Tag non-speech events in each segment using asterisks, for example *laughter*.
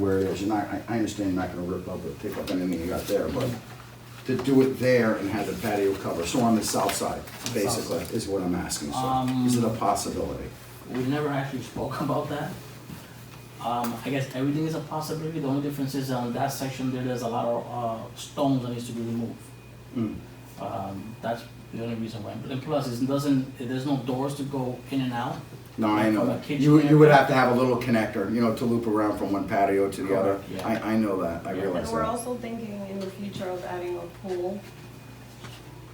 where it is, and I, I I understand you're not gonna rip up or pick up anything you got there, but to do it there and have the patio cover, so on the south side, the south basically, is what I'm asking, so, Um, is it a possibility? We never actually spoke *laughs* about that. Um, I guess everything is a possibility, the only difference is on that section there, there's a lot of, uh, stones that needs to be removed. Hmm. Mm. Um, that's the only reason why, and plus, it doesn't, there's no doors to go in and out. No, I know From a that. kitchen You, you would area. have to have a little connector, you know, to loop around from one patio to the other. Correct, yeah. I, I know that, I Yeah. realize And that. we're also thinking in the future of adding a pool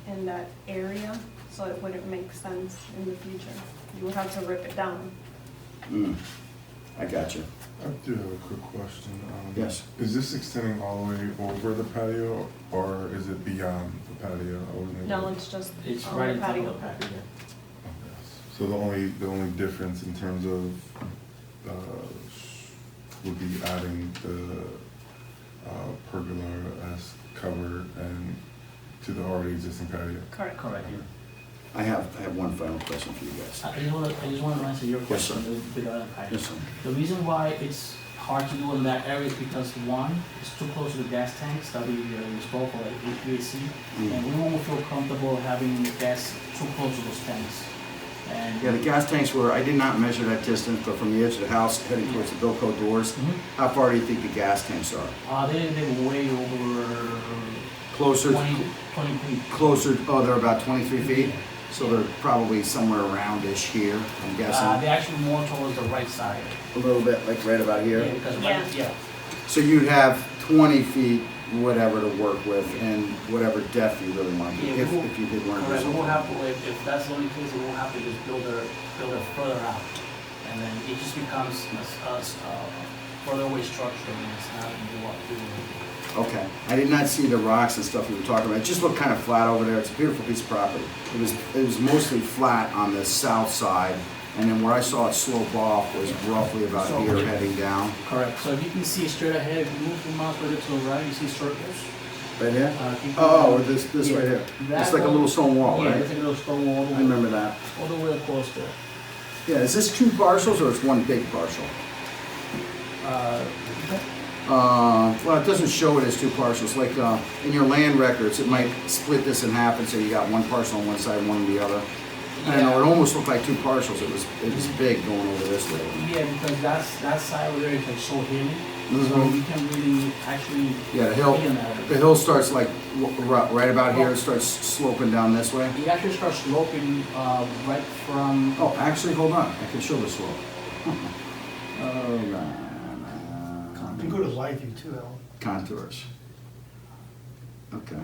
in that area, so it wouldn't make sense in the future. You would have to rip it down. Mm. I got you. I do have a quick question. Um, Yes. Is this extending all the way over the patio, or is it beyond the patio? I wasn't able- No, it's just It's on right the in front of the Um, patio. patio. Okay. So the only, the only difference in terms of, uh, would be adding the, uh, pergola as cover and to the already existing patio? Correct. Correct, yeah. I have, I have one final question for you guys. I just wanna, I just wanna answer your Yes, sir. question with- without a patio. Yes, sir. The reason why it's hard to do in that area is because one, it's too close to the gas tanks that we uh, installed for like HVAC. Mm. Hmm. And we won't feel comfortable having gas too close to those tanks. And. Yeah, the gas tanks were, I did not measure that distance, but from the edge of the house heading towards the Bilco doors, Mhm. how far do you think the gas tanks are? Uh, they, they were way over Closer, 20, 20 feet. closer, oh, they're about twenty-three feet? So they're probably somewhere around-ish here, I'm Uh, they're guessing. actually more towards the right side. A little bit, like right about Yeah, here? because Yeah. right, yeah. So you'd have twenty feet, whatever to work with, and whatever depth you really want, Yeah, we if, will- if you did want to do Correct, we something. will have to, if, if that's the only case, we will have to just build her, build her further out. And then it just becomes a, s- a s- a further away structure and it's not gonna do what we want Okay, I did not see the rocks and stuff you were talking about, it just looked kind of flat over there, it's a beautiful piece of property. It was, it was mostly flat on the south side, and then where I saw it slope off was roughly about So- here heading down. Correct, so if you can see straight ahead, if you move your mouse right to the right, you see circles. Right here? Uh, keep Oh, going. this, this right Yeah. here, it's That like a little one- stone wall, Yeah, it's right? like a little stone wall, all the I way- remember that. all the way across there. Yeah, is this two parcels or it's one big parcel? Uh, Uh, well, it doesn't show it as two parcels, like, uh, in your land records, it might split this in half and say you got one parcel on one side, one on the other. I don't know, it yeah. almost looked like two parcels, it was, it was big going over this way. Yeah, because that's, that side over there is like so hilly, so Mhm. we can really actually. Yeah, the hill, be in that area. the hill starts like w- ri- right about Oh. here, it starts sloping down this way. It actually starts sloping uh, right from. Oh, actually, hold on, I can show the *laughs* slope. Hold on. You can go to live view too, Alan. Contours. Okay,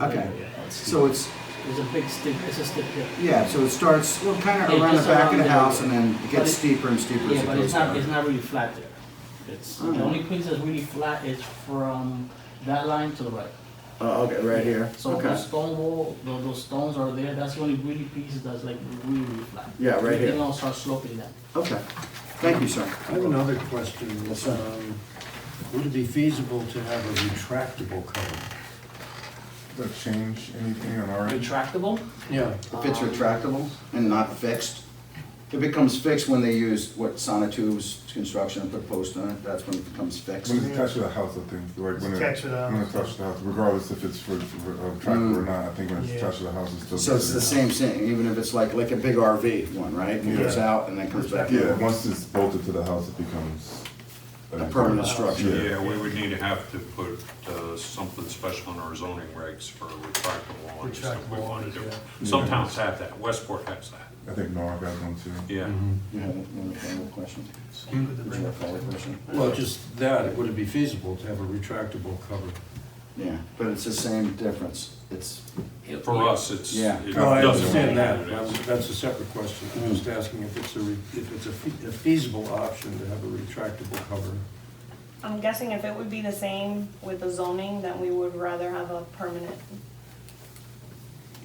okay, So so it's, it's a big stick. It's a stick hill. yeah, so it starts well, kind of Yeah, around the just back around of the the- house and then it but gets it's- steeper and steeper as Yeah, it but goes it's not. It's down. not really flat there. It's Mm. the only place that's really flat is from that line to the right. Oh, okay, right here, So okay, the stone wall, tho- those stones are there. That's the only really piece that's like really, really flat. Yeah, right here. Everything else starts sloping down. okay. Thank you, sir. I have another question. Um, Would it be feasible to have a retractable cover? Does that change anything on our end? Retractable. Yeah. If it's retractable and not fixed, it becomes fixed when they use what Sonotubes construction and put posts on it, that's when it becomes fixed. When it's attached to the house, I think, like when it, Attached to the when it's house. attached to the house, regardless if it's for, for uh, tractor or not, I think when it's Yeah. attached to the house, it's still. Mm. So it's the same thing, even if it's like, like a big RV one, right? It goes Yeah. out and then comes back Yeah, in. once it's bolted to the house, it becomes. A permanent structure. Yeah, we would need to have to put uh, something special in our zoning regs for retractable awnings if we Retractable want awnings, to do. it. yeah. Some towns have that, Westport has that, I think Norwalk has one too. yeah. Mm-hmm. You have another follow-up question? Did you have a follow-up question? Well, just that, would it be feasible to have a retractable cover? Yeah, but it's the same difference. It's, For us, it's. Yeah. it No, Oh, I doesn't understand that, matter what it That is. was- that's a separate question. I'm Mm-hmm. just asking if it's a, re- if it's a fe- a feasible option to have a retractable cover. I'm guessing if it would be the same with the zoning, then we would rather have a permanent.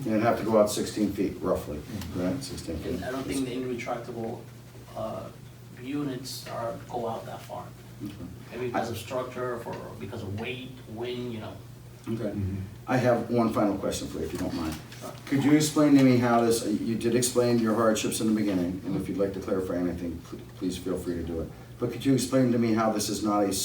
you'd have to go out sixteen feet roughly, right, sixteen feet? And Mm-hmm. I don't think the retractable uh, units are go out that far. Maybe because of structure, for because of weight, wind, you know. Okay. Mm-hmm. I have one final question for you, if you don't mind. Uh. Could you explain to me how this, you did explain your hardships in the beginning, and if you'd like to clarify anything, pl- please feel free to do it. But could you explain to me how this is not a